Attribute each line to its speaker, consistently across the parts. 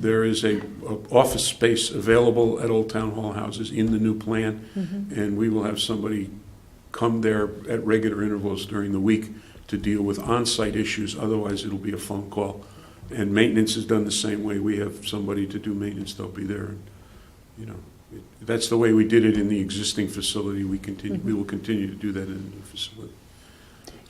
Speaker 1: there is a, a office space available at Old Town Hall houses in the new plan,
Speaker 2: Mm-hmm.
Speaker 1: and we will have somebody come there at regular intervals during the week to deal with on-site issues, otherwise it'll be a phone call. And maintenance is done the same way, we have somebody to do maintenance, they'll be there, and, you know. it- That's the way we did it in the existing facility, we continue, we will continue to do that in the new facility.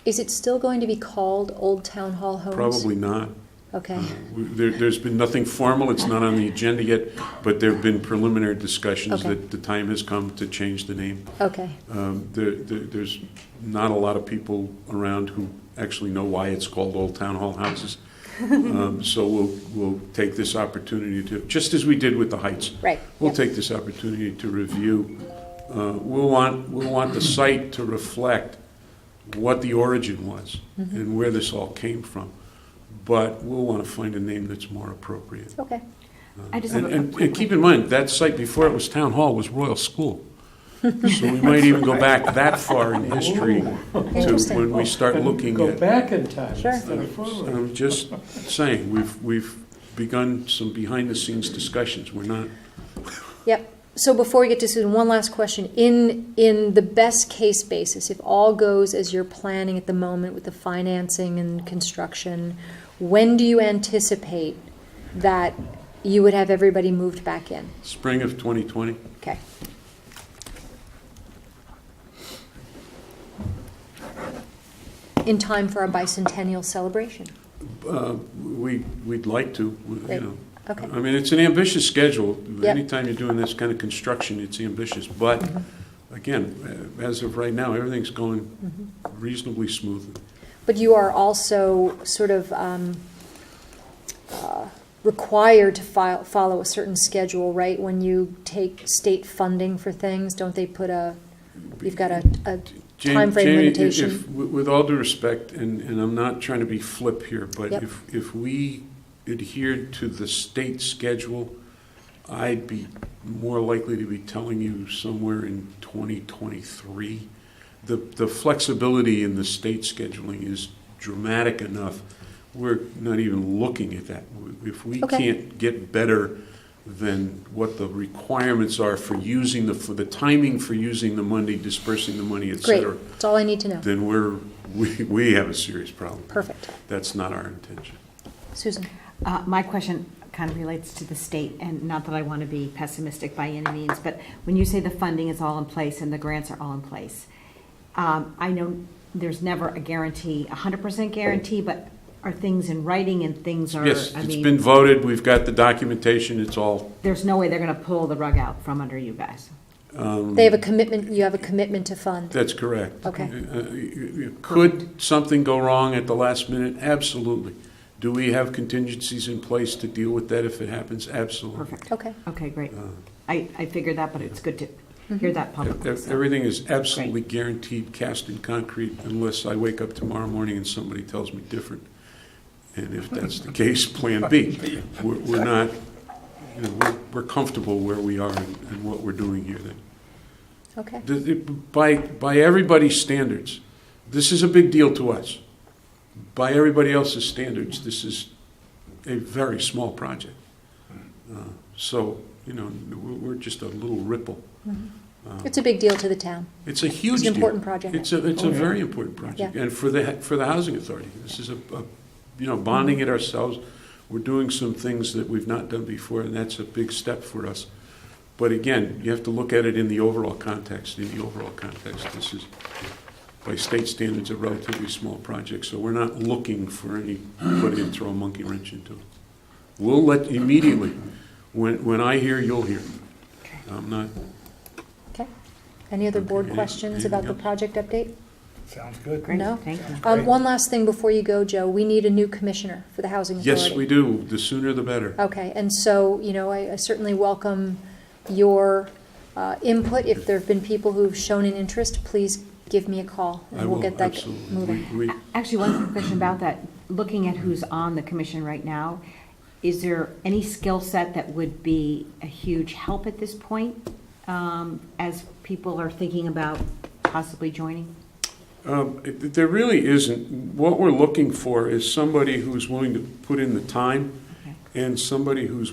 Speaker 2: Is it still going to be called Old Town Hall Homes?
Speaker 1: Probably Mm-hmm. not,
Speaker 2: Okay,
Speaker 1: We- There, there's been nothing formal, it's not on the agenda yet, but there have been preliminary discussions
Speaker 2: Okay.
Speaker 1: that the time has come to change the name.
Speaker 2: okay,
Speaker 1: Um, There, there- there's not a lot of people around who actually know why it's called Old Town Hall Houses. Um, So we'll, we'll take this opportunity to, just as we did with the Heights.
Speaker 2: right.
Speaker 1: We'll
Speaker 2: yeah.
Speaker 1: take this opportunity to review. uh, We'll want, we'll want the site to reflect what the origin was
Speaker 3: Mm-hmm.
Speaker 1: and where this all came from. But we'll want to find a name that's more appropriate.
Speaker 2: Okay,
Speaker 3: I just
Speaker 1: And,
Speaker 3: have a
Speaker 1: and-
Speaker 3: quick
Speaker 1: and keep in mind, that site before it was Town Hall was Royal School. So we might even go back that far in history to
Speaker 2: Interesting.
Speaker 1: when we start looking
Speaker 4: Go
Speaker 1: at.
Speaker 4: back in time
Speaker 2: Sure.
Speaker 4: instead of forward.
Speaker 1: I'm just saying, we've, we've begun some behind-the-scenes discussions. We're not
Speaker 2: yep. So before we get to Susan, one last question. In, in the best case basis, if all goes as you're planning at the moment with the financing and construction, when do you anticipate that you would have everybody moved back in?
Speaker 1: spring of 2020.
Speaker 2: Okay. In time for our bicentennial celebration.
Speaker 1: Uh, We, we'd like to, you
Speaker 2: Great.
Speaker 1: know.
Speaker 2: Okay.
Speaker 1: I mean, it's an ambitious schedule.
Speaker 2: Yep.
Speaker 1: Anytime you're doing this kind of construction, it's ambitious. But
Speaker 2: Mm-hmm.
Speaker 1: again, uh, as of right now, everything's going
Speaker 2: Mm-hmm.
Speaker 1: reasonably smoothly.
Speaker 2: But you are also sort of um, uh, required to file, follow a certain schedule, right? When you take state funding for things, don't they put a, you've got a, a
Speaker 1: Jam-
Speaker 2: Timeframe
Speaker 1: Jamie, if-
Speaker 2: limitation.
Speaker 1: if- With with all due respect, and, and I'm not trying to be flip here, but
Speaker 2: Yep.
Speaker 1: if, if we adhered to the state schedule, I'd be more likely to be telling you somewhere in 2023. The, the flexibility in the state scheduling is dramatic enough, we're not even looking at that. If we
Speaker 2: Okay.
Speaker 1: can't get better than what the requirements are for using the, for the timing for using the money, dispersing the money, et
Speaker 2: great,
Speaker 1: cetera,
Speaker 2: that's all I need to know.
Speaker 1: then we're, we, we have a serious problem.
Speaker 2: Perfect.
Speaker 1: That's not our intention.
Speaker 2: Susan?
Speaker 3: Uh, My question kind of relates to the state, and not that I want to be pessimistic by any means, but when you say the funding is all in place and the grants are all in place, um, I know there's never a guarantee, a hundred percent guarantee, but are things in writing and things are,
Speaker 1: Yes,
Speaker 3: I
Speaker 1: it's been
Speaker 3: mean,
Speaker 1: voted, we've got the documentation, it's all,
Speaker 3: there's no way they're going to pull the rug out from under you guys.
Speaker 2: They have a commitment, you have a commitment to fund.
Speaker 1: that's correct.
Speaker 2: Okay.
Speaker 1: Uh, uh, y- y- Could something go wrong at the last minute? Absolutely. Do we have contingencies in place to deal with that if it happens? Absolutely.
Speaker 3: Perfect.
Speaker 2: Okay,
Speaker 3: Okay, great.
Speaker 1: Uh.
Speaker 3: I, I figured that, but it's good to hear that
Speaker 1: Ev-
Speaker 3: publicly.
Speaker 1: ev-
Speaker 3: so.
Speaker 1: Everything is absolutely guaranteed, cast in concrete, unless I wake up tomorrow morning and somebody tells me different. And if that's the case, Plan B. We're we're not, you know, we're- we're comfortable where we are and and what we're doing here then.
Speaker 2: okay,
Speaker 1: The- the- By, by everybody's standards, this is a big deal to us. By everybody else's standards, this is a very small project. Uh, So, you know, we're we're just a little ripple. Uh,
Speaker 2: it's a big deal to the town.
Speaker 1: It's a huge
Speaker 2: It's
Speaker 1: deal.
Speaker 2: an important project.
Speaker 1: It's a, it's a
Speaker 4: Oh, yeah.
Speaker 1: very important project.
Speaker 2: Yeah.
Speaker 1: And for the, for the Housing Authority, this is a, a- you know, bonding it ourselves. We're doing some things that we've not done before, and that's a big step for us. But again, you have to look at it in the overall context, in the overall context. This is, by state standards, a relatively small project, so we're not looking for anybody to throw a monkey wrench into it. We'll let, immediately, when, when I hear, you'll hear. I'm not,
Speaker 2: Okay. Any other board
Speaker 1: Okay,
Speaker 2: questions
Speaker 1: anything
Speaker 2: about the
Speaker 1: else?
Speaker 2: project update?
Speaker 4: Sounds good.
Speaker 3: Great,
Speaker 2: No.
Speaker 3: thank you.
Speaker 2: Um, one last thing before you go, Joe. We need a new commissioner for the housing authority.
Speaker 1: yes, we do, the sooner the better.
Speaker 2: Okay, and so, you know, I I certainly welcome your uh, input. If there have been people who've shown an interest, please give me a call,
Speaker 1: I
Speaker 2: and we'll
Speaker 1: will,
Speaker 2: get that
Speaker 1: absolutely.
Speaker 2: moving.
Speaker 1: We- we-
Speaker 3: Actually, one quick question about that. Looking at who's on the commission right now, is there any skill set that would be a huge help at this point um, as people are thinking about possibly joining?
Speaker 1: um, it- There really isn't. What we're looking for is somebody who's willing to put in the time
Speaker 3: Okay.
Speaker 1: and somebody who's